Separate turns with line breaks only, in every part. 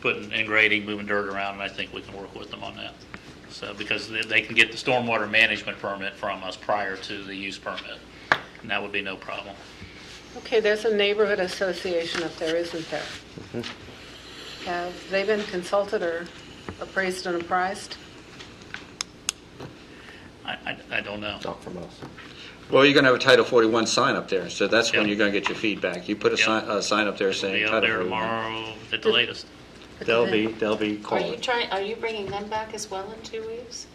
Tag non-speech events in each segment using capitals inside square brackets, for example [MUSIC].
putting and grading, moving dirt around, and I think we can work with them on that. So, because they- they can get the stormwater management permit from us prior to the use permit, and that would be no problem.
Okay, there's a neighborhood association up there, isn't there? Have they been consulted or appraised and apprised?
I, I, I don't know.
Not from us.
Well, you're going to have a Title 41 sign up there, so that's when
Yeah.
you're going to get your feedback. You put a
Yeah.
sign, a sign up there
Be
saying
up
Title
there
41.
tomorrow at the latest.
They'll be, they'll be
Are you
calling.
trying, are you bringing them back as well in two weeks?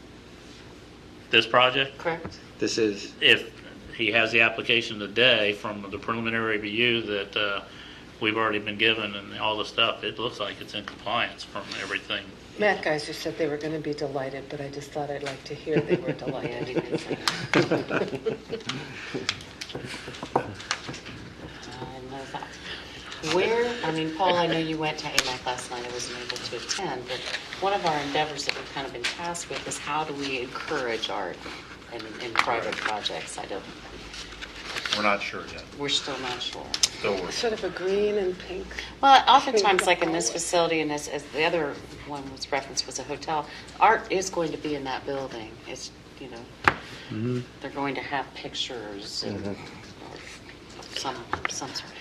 This project,
Correct?
This is,
if he has the application today from the preliminary review that uh, we've already been given and all the stuff, it looks like it's in compliance from everything.
Matt Geiser said they were going to be delighted, but I just thought I'd like to hear they were
[LAUGHS] Yeah,
delighted.
you did say
[LAUGHS]
that. I know that. Where, I mean, Paul, I know you went to AMAC last night, I wasn't able to attend, but one of our endeavors that we've kind of been tasked with is how do we encourage art in, in private projects? I don't,
We're not sure yet.
we're still not sure.
Still working.
Sort of a green and pink.
Well, oftentimes, like in this facility, and as, as the other one was referenced was a hotel, art is going to be in that building. It's, you know, they're going to have pictures and or some, some sort.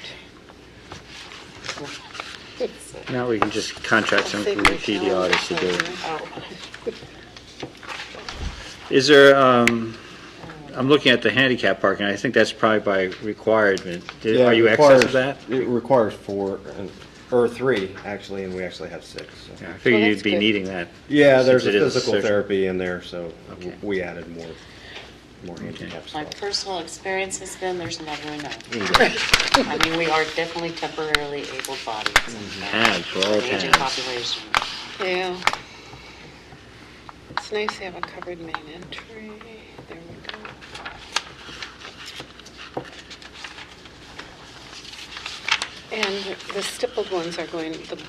now we can just contract someone from the PD Artists to do it.
Oh,
[LAUGHS] Is there, um, I'm looking at the handicap parking, I think that's probably by requirement. Did-
Yeah,
Are
it
you excess of that?
requires- It requires four, and- or three, actually, and we actually have six. so.
Yeah, I figured
Well,
you'd
that's
be
good.
needing that.
Yeah,
since
there's a
it is
physical
social-
therapy in there, so w-
Okay.
we added more, more handicap
My
spots.
personal experience has been, there's never enough. I mean, we are definitely temporarily able-bodied.
Have for all
Aging
times.
population.
Yeah. It's nice to have a covered main entry. There we go. And the stippled ones are going, the-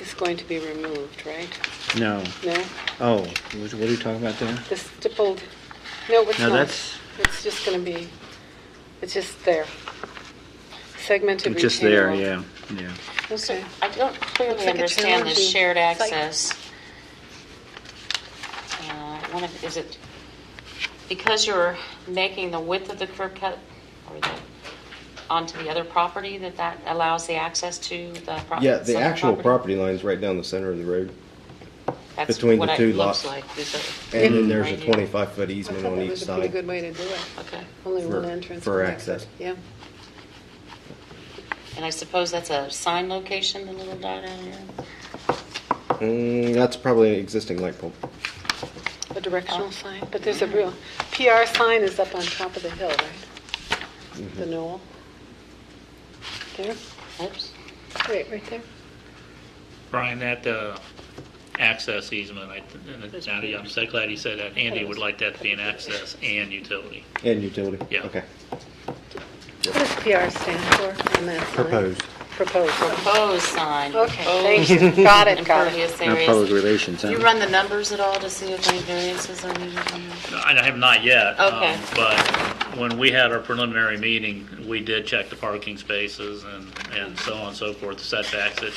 is going to be removed, right?
No.
No?
Oh, what what are you talking about there?
The stippled, no, it's
No,
not.
that's-
It's just going to be, it's just there. Segmented retaining
Just there,
wall.
yeah, yeah.
So
Okay.
I don't
Looks
clearly
like a
understand the
challenging
shared
site.
access. Uh, One of, is it, because you're making the width of the curb cut or the, onto the other property, that that allows the access to the pro-
Yeah, the
southern
actual property line's right down the center of the road,
That's
between the
what it
two
looks
lots.
like, is it?
and then there's a
Right here.
25-foot
I thought
easement
that
on each
was a pretty good
side.
way to do it.
Okay.
Only one
For-
entrance.
for
and
access.
Yeah.
And I suppose that's a sign location, the little dot down here?
Mm, That's probably an existing light pole.
A
Uh,
directional sign, but there's a real, PR sign is up on top of the hill, right?
Mm-hmm.
The knoll. There,
Oops.
wait, right there.
Brian, that uh, access easement, I, and it- now that I'm so glad you said that, Andy would like that to be an access and utility.
And utility?
Yeah.
Okay.
What does PR stand for on that sign?
Proposed.
Proposed.
Proposed sign.
Okay,
proposed
thank
Oh.
you. Got it, got it.
Impervious
Not
areas.
public relations, huh?
You run the numbers at all to see if any variances are needed on that?
I have not yet. um,
Okay.
But when we had our preliminary meeting, we did check the parking spaces and, and so on and so forth, the setbacks. It,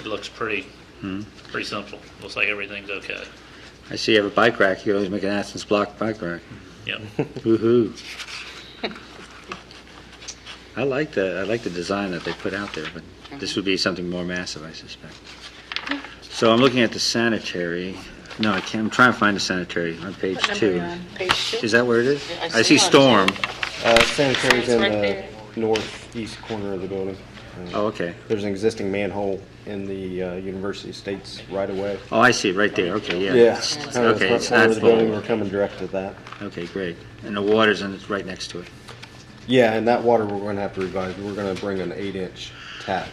it looks pretty, pretty simple. Looks like everything's okay.
I see you have a bike rack, you can always make an Athens block bike rack.
[LAUGHS]
Yep.
Woo-hoo. I like the, I like the design that they put out there, but this would be something more massive, I suspect. So I'm looking at the sanitary, no, I can't, I'm trying to find the sanitary on page
What number are you
two.
on? Page two?
Is that where it is?
Yeah, I
I
see
see
it on
storm.
Uh, Sanitary's
It's
in
right
the
there.
northeast corner of the building. Uh,
Oh, okay.
There's an existing manhole in the uh, University States right away.
Oh, I see, it right there, okay, yeah. It's-
Kind of the
Okay,
front
it's
corner
not
of the building,
full.
we're coming direct to that.
Okay, great. And the water's in, it's right next to it.
Yeah, and that water we're gonna have to revise, we're gonna bring an eight-inch tap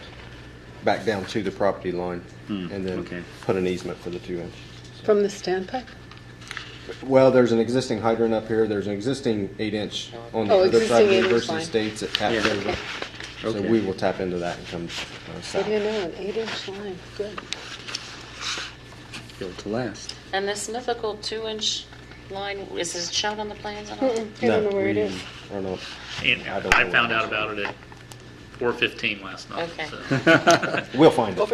back down to the property line and
Hmm, okay.
then put an easement for the two-inch.
From the standpipe?
Well, there's an existing hydrant up here, there's an existing eight-inch on the
Oh,
other side
existing
of
8-inch
University
line.
States that taps
Yeah.
over. So
Okay.
we will tap into that and come uh,
What
south.
do you know, an eight-inch line, good.
Built to last.
And this mythical two-inch line, is it shown on the plans at all?
Mm-mm, I don't
No,
know where it
we-
is.
I don't know.
And
I don't know
I found
where it
out
is.
about it at 4:15 last night.
Okay.
so.
We'll find it.